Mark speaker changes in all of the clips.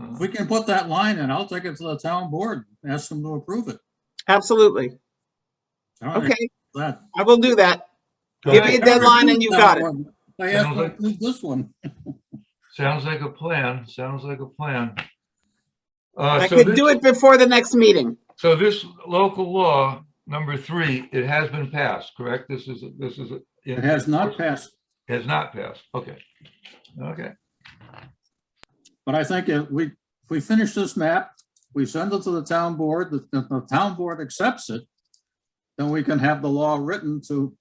Speaker 1: If we can put that line in, I'll take it to the town board, and ask them to approve it.
Speaker 2: Absolutely.
Speaker 1: I don't think
Speaker 2: Okay,
Speaker 1: that-
Speaker 2: I will do that.
Speaker 3: Sounds
Speaker 2: Give
Speaker 3: like-
Speaker 2: me a deadline and you've got it.
Speaker 1: I have to approve this one.
Speaker 3: Sounds like a plan, sounds like a plan. Uh,
Speaker 2: I could do it before the next meeting.
Speaker 3: So this local law, number three, it has been passed, correct? This is, this is.
Speaker 1: It has not passed,
Speaker 3: Has not passed, okay. Okay,
Speaker 1: but I think if we, if we finish this map, we send it to the town board, the, the- the town board accepts it, then we can have the law written to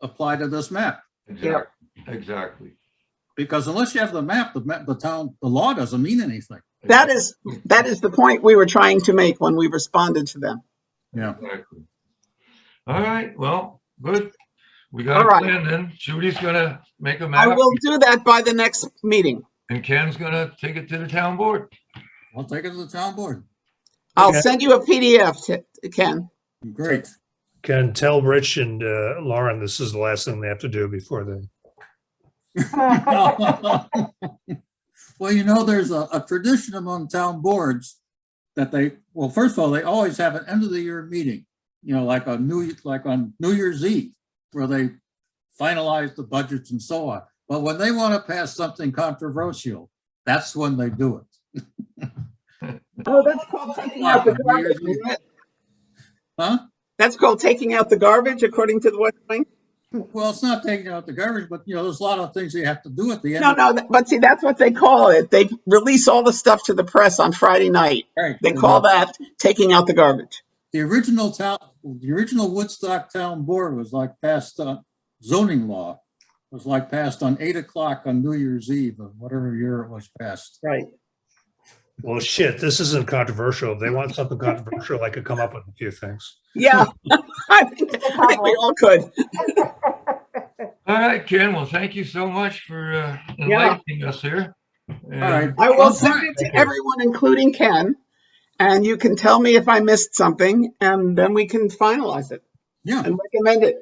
Speaker 1: apply to this map.
Speaker 3: exactly, exactly.
Speaker 1: Because unless you have the map, the, ma- the town, the law doesn't mean anything.
Speaker 2: That is, that is the point we were trying to make when we responded to them.
Speaker 1: Yeah.
Speaker 3: Exactly. All right, well, good. We
Speaker 2: All
Speaker 3: got a
Speaker 2: right.
Speaker 3: plan then. Judy's gonna make a
Speaker 2: I
Speaker 3: map
Speaker 2: will do that by the next meeting.
Speaker 3: and Ken's gonna take it to the town board.
Speaker 1: I'll take it to the town board.
Speaker 2: I'll
Speaker 4: Okay.
Speaker 2: send you a PDF, to- Ken.
Speaker 1: Great.
Speaker 4: Can tell Rich and uh, Lauren this is the last thing they have to do before the
Speaker 1: Well, you know, there's a, a tradition among town boards that they, well, first of all, they always have an end of the year meeting, you know, like on New, like on New Year's Eve, where they finalize the budgets and so on. But when they want to pass something controversial, that's when they do it.
Speaker 2: Oh, that's called taking out the garbage. isn't it?
Speaker 1: Huh?
Speaker 2: That's called taking out the garbage, according to the West Wing? Hmm.
Speaker 1: Well, it's not taking out the garbage, but you know, there's a lot of things you have to do at the end.
Speaker 2: No,
Speaker 1: of
Speaker 2: no, th- but see, that's what they call it. They release all the stuff to the press on Friday night.
Speaker 1: Right.
Speaker 2: They call that taking out the garbage.
Speaker 1: the original town, the original Woodstock Town Board was like passed on zoning law. Was like passed on eight o'clock on New Year's Eve of whatever year it was passed.
Speaker 2: Right.
Speaker 4: well shit this isn't controversial if they want something controversial i could come up with a few things
Speaker 2: Yeah. I think I think we all could.
Speaker 3: All right, Ken, well, thank you so much for uh,
Speaker 2: Yeah.
Speaker 3: enlightening us here. And-
Speaker 1: All right.
Speaker 2: I will
Speaker 1: Okay.
Speaker 2: send it to everyone, including Ken. And you can tell me if I missed something and then we can finalize it
Speaker 1: Yeah.
Speaker 2: and recommend it.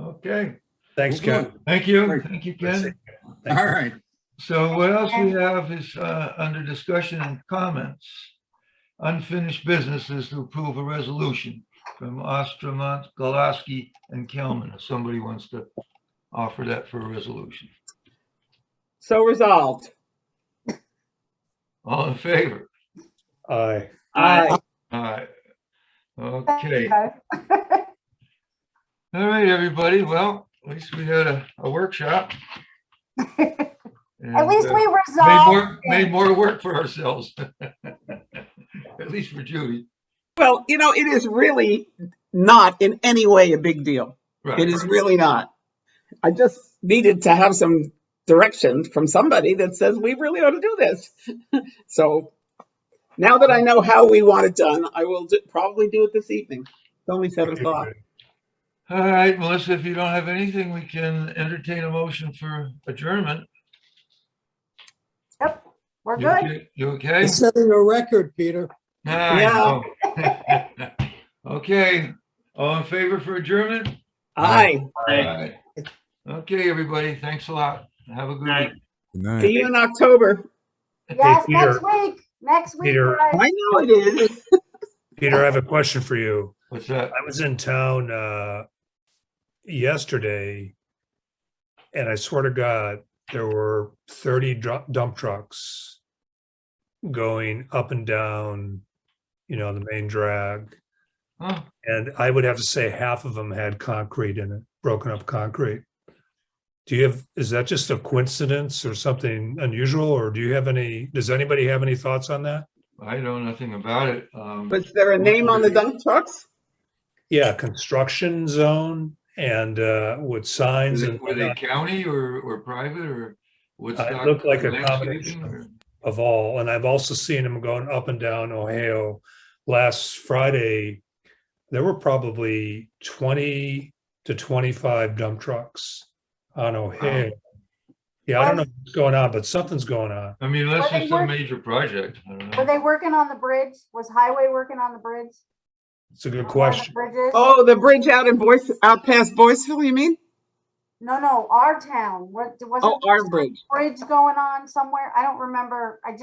Speaker 3: Okay,
Speaker 4: thanks
Speaker 1: we'll
Speaker 4: Ken.
Speaker 1: do
Speaker 3: thank you,
Speaker 1: Great.
Speaker 3: thank you,
Speaker 4: That's
Speaker 3: Ken.
Speaker 4: it.
Speaker 1: it. All right.
Speaker 3: So what else we have is uh, under discussion and comments. Unfinished business is to approve a resolution from Ostermont, Galaski, and Kelman. If somebody wants to offer that for a resolution.
Speaker 2: So resolved.
Speaker 3: All in favor?
Speaker 4: Aye.
Speaker 2: Aye.
Speaker 3: All right. Okay. All right, everybody. Well, at least we had a, a workshop. uh,
Speaker 5: At
Speaker 4: uh,
Speaker 5: least we
Speaker 3: Made
Speaker 5: resolved.
Speaker 3: more, made more work for ourselves. At least for Judy.
Speaker 2: Well, you know, it is really not in any way a big deal.
Speaker 3: Right,
Speaker 2: It is
Speaker 3: right.
Speaker 2: really not. I just needed to have some direction from somebody that says we really ought to do this. So now that I know how we want it done, I will do- probably do it this evening. It's only seven o'clock.
Speaker 3: All right, Melissa, if you don't have anything, we can entertain a motion for adjournment.
Speaker 5: Yep, we're
Speaker 3: You
Speaker 5: good.
Speaker 3: okay? You okay?
Speaker 6: You're setting a record, Peter.
Speaker 3: Ah, I know. Okay, all in favor for adjournment?
Speaker 2: Aye.
Speaker 3: Aye. Okay, everybody, thanks a lot. Have a good
Speaker 4: Aye.
Speaker 3: week.
Speaker 7: Good night.
Speaker 2: See you in October.
Speaker 3: Hey,
Speaker 5: Yes,
Speaker 4: Peter.
Speaker 5: next week, next week,
Speaker 4: Peter.
Speaker 5: guys.
Speaker 2: I know it is.
Speaker 4: Peter, I have a question for you.
Speaker 3: What's that?
Speaker 4: I was in town uh, yesterday, and I swear to God, there were 30 dru- dump trucks going up and down, you know, the main drag.
Speaker 3: Huh?
Speaker 4: And I would have to say half of them had concrete in it, broken up concrete. Do you have, is that just a coincidence or something unusual, or do you have any, does anybody have any thoughts on that?
Speaker 3: I know nothing about it. Um,
Speaker 2: Was there a name on the dump trucks?
Speaker 4: Yeah, construction zone and uh, with signs
Speaker 3: is it-
Speaker 4: and
Speaker 3: Were they county or, or private or Woodstock?
Speaker 4: Uh, looked like a
Speaker 3: landscaping
Speaker 4: combination of-
Speaker 3: or-
Speaker 4: of all. And I've also seen them going up and down Ohio. Last Friday, there were probably 20 to 25 dump trucks on Ohio. Yeah, I don't know what's going on, but something's going on.
Speaker 3: I mean, unless
Speaker 5: Were they
Speaker 3: it's a
Speaker 5: work-
Speaker 3: major project, I don't
Speaker 5: Were
Speaker 3: know.
Speaker 5: they working on the bridge? Was highway working on the bridge?
Speaker 4: It's a good
Speaker 5: On one of the
Speaker 4: question.
Speaker 5: Bridges?
Speaker 2: Oh, the bridge out in Boyce, out past Boyceville, you mean?
Speaker 5: No, no, our town. What,
Speaker 2: Oh,
Speaker 5: wasn't
Speaker 2: our
Speaker 5: there
Speaker 2: bridge.
Speaker 5: a bridge going on somewhere? I don't remember. I just